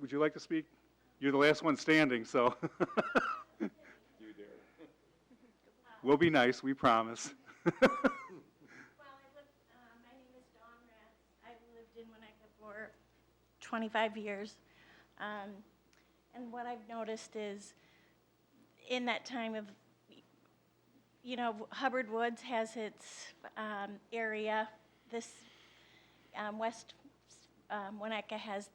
would you like to speak? You're the last one standing, so. We'll be nice, we promise. Well, I lived, uh, my name is Dawn Ratz. I've lived in Winnetka for 25 years. Um, And what I've noticed is, in that time of, you know, Hubbard Woods has its um, area, this um, West um, Winnetka has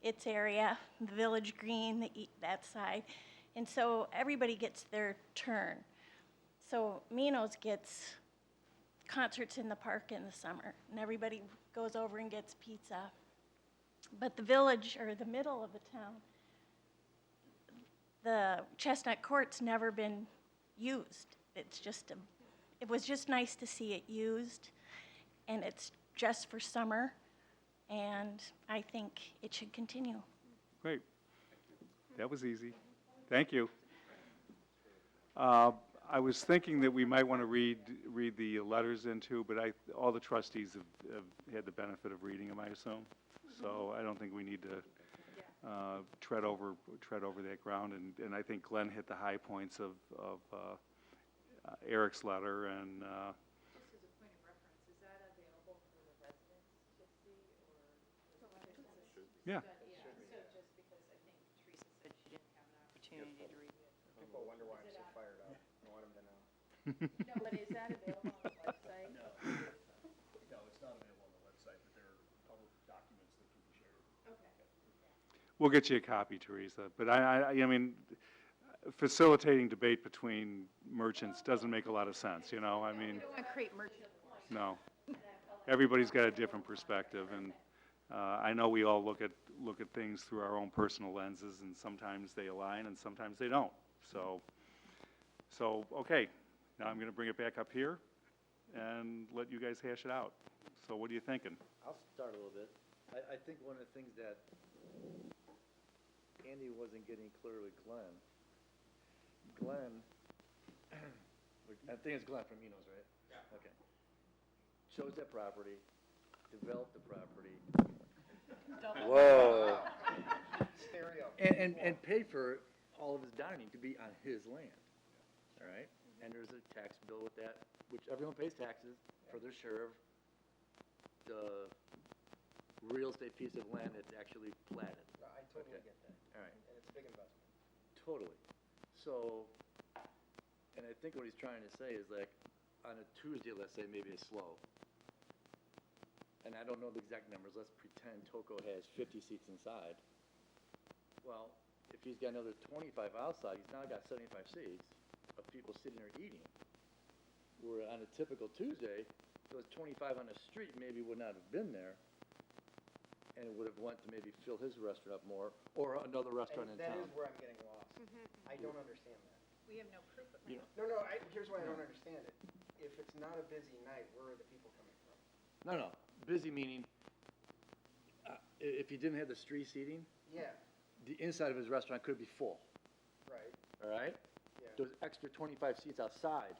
its area, the Village Green, the e- that side. And so everybody gets their turn. So Minos gets concerts in the park in the summer, and everybody goes over and gets pizza. But the village, or the middle of the town, the Chestnut Court's never been used. It's just, a, it was just nice to see it used, and it's just for summer, and I think it should continue. Great. That was easy. Thank you. Uh, I was thinking that we might want to read, read the letters into, but I, all the trustees have, have had the benefit of reading them, I assume. So I don't think we need to uh, tread over, tread over that ground. And, and I think Glenn hit the high points of, of uh, Eric's letter and, uh, Just as a point of reference, is that available for the residents to see or? yeah. Yeah, so just because I think Teresa said she didn't have an opportunity to read it. People wonder why I'm so fired up. I want 'em to know. No, but is that available on the website? No, it's not available on the website, but there are public documents that can be shared. Okay. We'll get you a copy, Teresa, but I, I, I mean, facilitating debate between merchants doesn't make a lot of sense, you know, I mean, I want to create merchant. no. Everybody's got a different perspective, and, uh, I know we all look at, look at things through our own personal lenses, and sometimes they align and sometimes they don't, so. So, okay, now I'm gonna bring it back up here and let you guys hash it out. So what are you thinking? I'll start a little bit. I, I think one of the things that Andy wasn't getting clear with Glenn, Glenn, I think it's Glenn from Enos, right? Yeah. Okay. Chose that property, developed the property. Whoa. And, and, and paid for all of his dining to be on his land, all right? And there's a tax bill with that, which everyone pays taxes for their share of the real estate piece of land that's actually platted. I totally Okay. get All that, right, and it's a big investment. totally. So, and I think what he's trying to say is like, on a Tuesday, let's say, maybe it's slow. And I don't know the exact numbers, let's pretend Toco has fifty seats inside. Well, if he's got another twenty-five outside, he's now got seventy-five seats of people sitting there eating. Where on a typical Tuesday, those twenty-five on the street maybe would not have been there, and would have went to maybe fill his restaurant up more, or another restaurant in And town. that is where I'm getting lost. I don't understand that. We have no proof of that. You know, No, no, I, here's why I don't understand it. If it's not a busy night, where are the people coming from? No, no, busy meaning, uh, i- if he didn't have the street seating, Yeah, the inside of his restaurant could be full, right, all right? yeah. Those extra twenty-five seats outside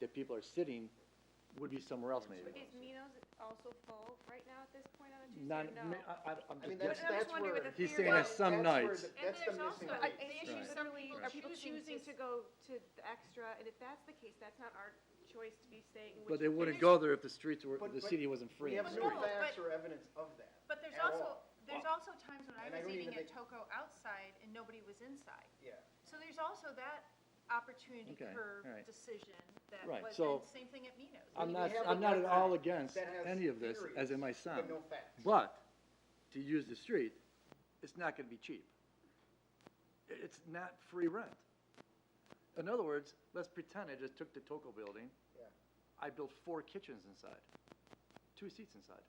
that people are sitting would be somewhere else maybe. Is Minos also full right now at this point on a Tuesday? Not, No. ma- I, I- I'm I mean, just that's, guessing. I was that's wondering where. with the He's theory. saying that some that's where nights, the- And That's the there's missing also link. an issue, Right. some people Right. are choosing to go to the extra, and if that's the case, that's not our choice to be saying. but which- they wouldn't there's- go there if the streets were, But- the but city wasn't free. We have But no no, facts but- or evidence of that. But there's At also, all. there's also times when I And I was don't eating even at Toco outside and nobody was inside. Yeah, So there's also that opportunity Okay, for all right. decision that Right, was, so- and same thing at Minos. I'm We not, have a I'm not at record all against that has any of this, as it theories, might but sound. no facts. But, to use the street, it's not gonna be cheap. I- It's not free rent. In other words, let's pretend I just took the Toco building, yeah. I built four kitchens inside, two seats inside.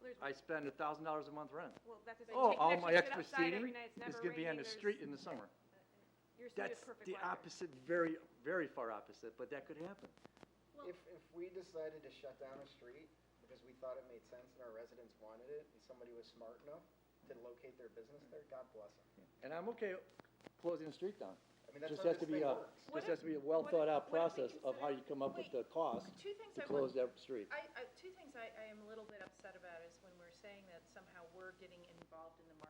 there's- I spend a thousand dollars a month rent. Well, that doesn't Oh, take all an my extra extra sit outside every seating night, it's is never gonna be on raining, the there's- street in the summer. Your seat is That's perfect the weather. opposite, very, very far opposite, but that could happen. If, if we decided to shut down a street because we thought it made sense and our residents wanted it, and somebody was smart enough to locate their business there, God bless them. And I'm okay closing the street down. I mean, that's Just how has to this be thing a, works. What just if- has to be a well what if- thought out what if we process of how you come up with the cost Two things to I close want, that street. I, I, two things I, I am a little bit upset about is when we're saying that somehow we're getting involved in the